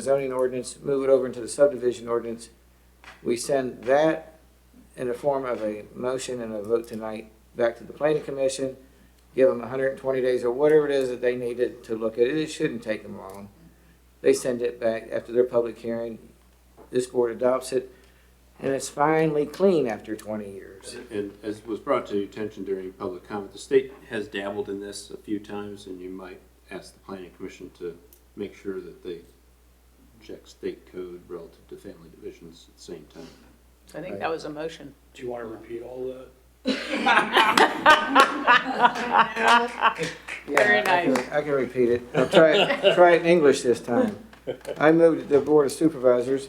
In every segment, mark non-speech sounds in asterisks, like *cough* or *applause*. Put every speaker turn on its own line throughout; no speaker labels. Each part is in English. zoning ordinance, move it over into the subdivision ordinance. We send that in the form of a motion and a vote tonight back to the planning commission. Give them hundred and twenty days or whatever it is that they needed to look at it. It shouldn't take them long. They send it back after their public hearing. This board adopts it and it's finally clean after twenty years.
And as was brought to your attention during public comment, the state has dabbled in this a few times, and you might ask the planning commission to make sure that they check state code relative to family divisions at the same time.
I think that was a motion.
Do you want to repeat all that?
Yeah,
Very
I can-
nice.
I can repeat it. I'll try
*laughs*
it, try it in English this time. I move that the Board of Supervisors,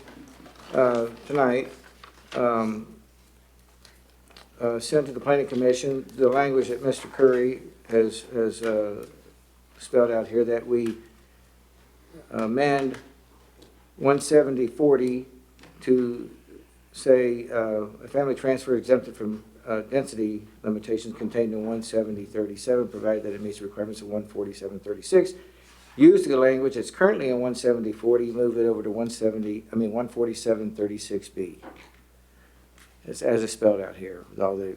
uh, tonight, um, uh, send to the Planning Commission the language that Mr. Curry has, has, uh, spelled out here, that we amend one seventy forty to say, uh, a family transfer exempted from uh, density limitations contained in one seventy thirty-seven, provided that it meets the requirements of one forty-seven thirty-six. Use the language that's currently in one seventy forty, move it over to one seventy, I mean, one forty-seven thirty-six B. As, as it's spelled out here, with all the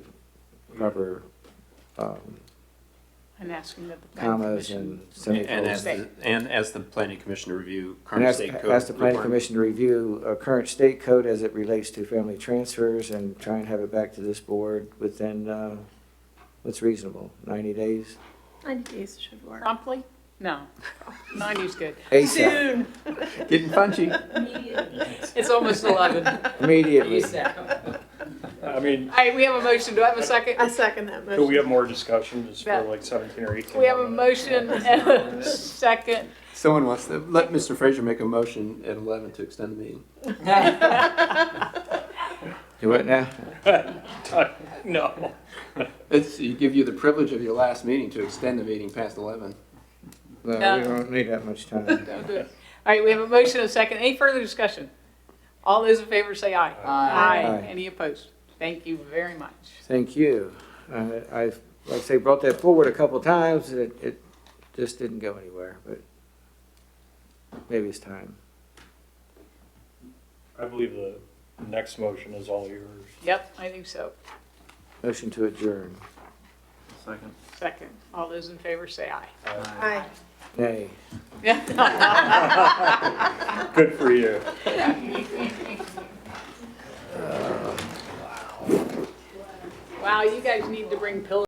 proper, um,
I'm asking that the planning
commas
commission.
and
And as,
semicolons.
the- and as the planning commission to review
And
current
ask,
state code.
ask the planning
requirements.
commission to review uh current state code as it relates to family transfers and try and have it back to this board within, uh, what's reasonable, ninety days?
90 days should work.
Promptly? No. 90's good. *laughs*
ASAP,
Soon.
Getting punchy.
*laughs* It's almost 11.
immediately.
I mean,
All right, we have a motion. Do I have a second?
I second that
could we
motion.
have more discussion just
Yeah.
for like 17 or 18?
We have a
more
motion and a second.
Someone wants to, let Mr. Fraser make a motion at eleven to extend the meeting.
Do what now?
minutes? No.
It's, you give you the privilege of your last meeting to extend the meeting past eleven.
No,
No.
we don't need that much time.
All right, we have a motion and a second. Any further discussion? All those in favor say aye.
Aye.
Any opposed? Thank you very much.
Thank you. Uh, I've, like I say, brought that forward a couple times, and it, it just didn't go anywhere, but maybe it's time.
I believe the next motion is all yours.
Yep, I think so.
Motion to adjourn.
Second. All those in favor say aye. *laughs*
Aye.
Nay.
Good for you.
Wow, you guys need to bring pillows.